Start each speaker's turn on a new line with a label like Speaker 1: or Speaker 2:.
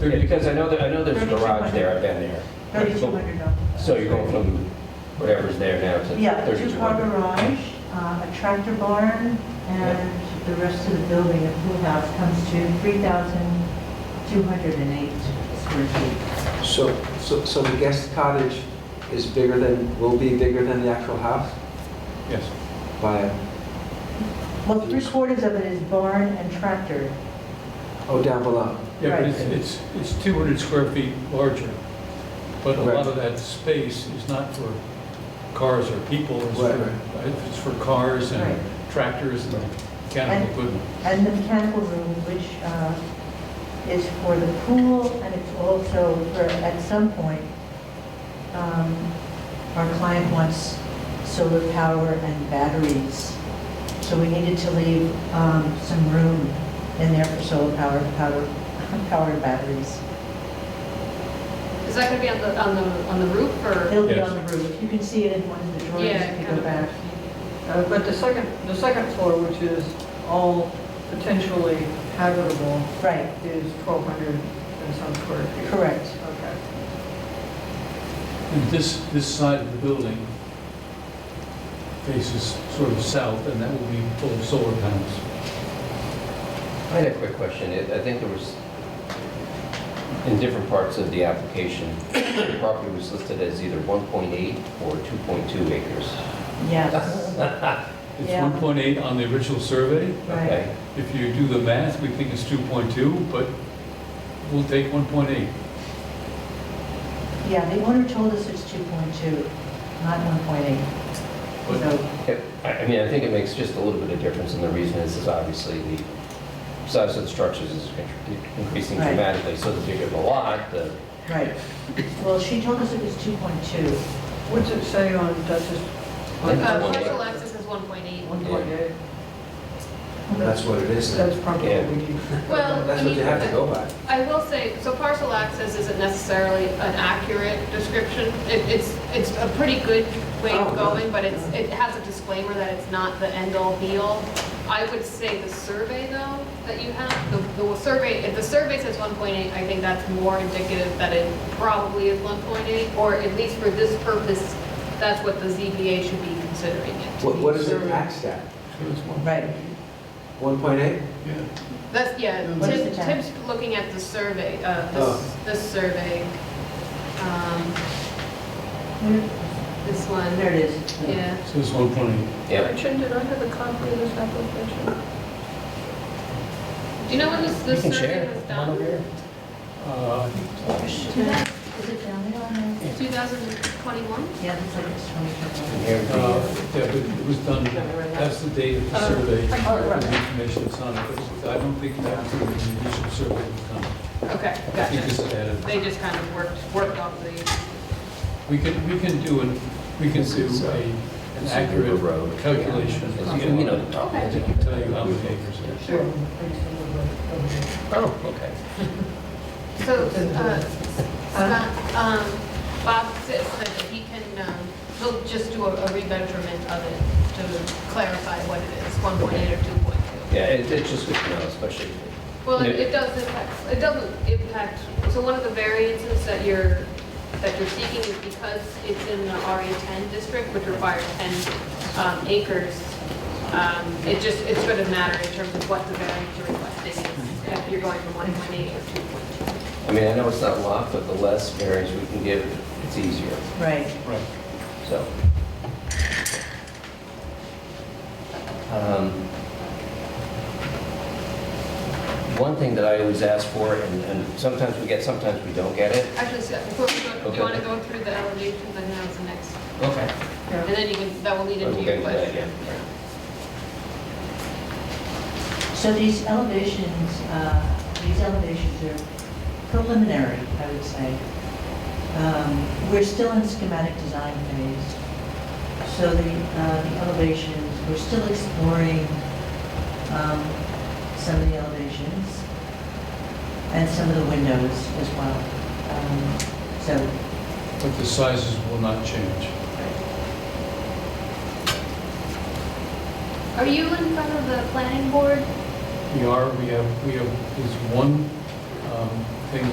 Speaker 1: Yeah, Because I know that, I know there's a garage there, I've been there.
Speaker 2: Thirty-two hundred dollars.
Speaker 1: So you're going from whatever's there now
Speaker 2: Yeah,
Speaker 1: to
Speaker 2: two-car
Speaker 1: 3,200.
Speaker 2: garage, uh, a tractor barn, and the rest of the building, a pool house, comes to 3,208 square feet.
Speaker 3: So, so, so the guest cottage is bigger than, will be bigger than the actual house
Speaker 1: Yes.
Speaker 3: by,
Speaker 2: Well, three-quarters of it is barn and tractor.
Speaker 3: oh, down below.
Speaker 4: Yeah,
Speaker 2: Right.
Speaker 4: but it's, it's, it's 200 square feet larger, but a
Speaker 3: Right.
Speaker 4: lot of that space is not for cars or people, it's
Speaker 3: Right,
Speaker 4: for, uh, it's for cars
Speaker 2: Right.
Speaker 4: and tractors and
Speaker 2: And-
Speaker 4: mechanical equipment.
Speaker 2: And the mechanical room, which uh, is for the pool, and it's also for, at some point, um, our client wants solar power and batteries. So we needed to leave um, some room in there for solar power, power, powered batteries.
Speaker 5: Is that going to be on the, on the, on the roof or?
Speaker 2: It'll be
Speaker 4: Yes.
Speaker 2: on the roof. You can see it in one of the drawings if you go
Speaker 5: kind of.
Speaker 2: back.
Speaker 6: Uh, But the second, the second floor, which is all potentially habitable,
Speaker 2: Right,
Speaker 6: is 1,200 and some square feet.
Speaker 2: correct.
Speaker 6: Okay.
Speaker 4: And this, this side of the building faces sort of south, and that will be full of solar panels.
Speaker 1: I had a quick question. It- I think there was, in different parts of the application, the property was listed as either 1.8 or 2.2 acres.
Speaker 2: Yes,
Speaker 4: It's
Speaker 2: Yeah.
Speaker 4: 1.8 on the original survey.
Speaker 2: right.
Speaker 1: Okay.
Speaker 4: If you do the math, we think it's 2.2, but we'll take 1.8.
Speaker 2: Yeah, the owner told us it's 2.2, not 1.8.
Speaker 4: But-
Speaker 2: So,
Speaker 1: Yep. I I mean, I think it makes just a little bit of difference, and the reason is, is obviously the size of the structures is increasing
Speaker 2: Right.
Speaker 1: dramatically, so the bigger the lot, the
Speaker 2: right. Well, she told us it was 2.2.
Speaker 6: What's it say on Duchess? on
Speaker 1: That's
Speaker 5: Uh,
Speaker 1: one.
Speaker 6: Duchess?
Speaker 5: Partial access is 1.8.
Speaker 6: 1.8,
Speaker 3: That's what it is then.
Speaker 6: that's probably
Speaker 1: Yeah.
Speaker 6: what we need.
Speaker 5: Well, I
Speaker 3: That's what
Speaker 5: mean,
Speaker 3: you have to go by.
Speaker 5: I will say, so partial access isn't necessarily an accurate description. It, it's, it's a pretty good way
Speaker 3: Oh,
Speaker 5: of
Speaker 3: really?
Speaker 5: going, but it's, it has a disclaimer that it's not the end-all, be-all. I would say the survey though, that you have, the, the survey, if the survey says 1.8, I think that's more indicative that it probably is 1.8, or at least for this purpose, that's what the ZBA should be considering it. to
Speaker 3: What,
Speaker 5: be.
Speaker 3: what is it taxed at?
Speaker 4: So it's one-
Speaker 2: Right,
Speaker 3: 1.8?
Speaker 4: yeah.
Speaker 5: That's, yeah,
Speaker 2: What is
Speaker 5: Tim-
Speaker 2: the time?
Speaker 5: Tim's looking at the survey, uh,
Speaker 3: Oh.
Speaker 5: this, this survey. Um, This one,
Speaker 2: there it is.
Speaker 5: yeah.
Speaker 4: So it's 1.8.
Speaker 1: Yep.
Speaker 6: Gretchen, did I have a copy of this application?
Speaker 5: Do you know when this,
Speaker 1: You
Speaker 5: this
Speaker 1: can
Speaker 5: survey
Speaker 1: share.
Speaker 5: was
Speaker 1: Come on over
Speaker 5: done?
Speaker 1: here.
Speaker 4: Uh, I think
Speaker 2: Is it down there on the-
Speaker 5: 2021?
Speaker 2: Yeah, it's like it's
Speaker 1: And
Speaker 2: 20.
Speaker 1: here would be,
Speaker 5: Um,
Speaker 4: Uh,
Speaker 1: uh,
Speaker 4: Yeah, but it was done, that's the date of the
Speaker 5: Oh,
Speaker 4: survey,
Speaker 5: oh, right.
Speaker 4: the information that's on it, but I don't think that the initial survey was done.
Speaker 5: Okay,
Speaker 4: I think this
Speaker 5: gotcha.
Speaker 4: added,
Speaker 5: They just kind of worked, worked off the,
Speaker 4: we can, we can do an, we can
Speaker 1: This
Speaker 4: do
Speaker 1: is, uh,
Speaker 4: a, an
Speaker 1: this is
Speaker 4: accurate
Speaker 1: River Road.
Speaker 4: calculation.
Speaker 1: It's- You know the property.
Speaker 4: I can tell you how many acres it is.
Speaker 6: Sure.
Speaker 1: Oh, okay.
Speaker 5: so, uh, Scott, um, Bob said said that he can, um, he'll just do a a remeasurement of it to clarify what it is, 1.8 or 2.2.
Speaker 1: Yeah, it- it's just good to know, especially.
Speaker 5: Well, it
Speaker 1: Yeah.
Speaker 5: it does impact, it doesn't impact, so one of the variances that you're, that you're seeking is because it's in the RA10 district, which requires 10 um, acres, um, it just, it sort of matter in terms of what the variance you're requesting is, if you're going from 1.8 or 2.2.
Speaker 1: I mean, I know it's not a lot, but the less variance we can give, it's easier,
Speaker 2: Right.
Speaker 4: Right.
Speaker 1: so. Um, One thing that I always ask for, and and sometimes we get, sometimes we don't get it.
Speaker 5: Actually, Scott, before we go, do
Speaker 1: Okay.
Speaker 5: you want to go through the elevations, I think that was the next,
Speaker 1: Okay.
Speaker 5: and then you can, that will lead into
Speaker 1: We'll
Speaker 5: your
Speaker 1: get into that,
Speaker 5: question.
Speaker 1: yeah.
Speaker 2: So these elevations, uh, these elevations are preliminary, I would say. Um, We're still in schematic design phase, so the uh, the elevations, we're still exploring um, some of the elevations and some of the windows as well. Um, So,
Speaker 4: But the sizes will not change.
Speaker 5: Are you in front of the planning board
Speaker 4: We are, we have, we have, there's one um, thing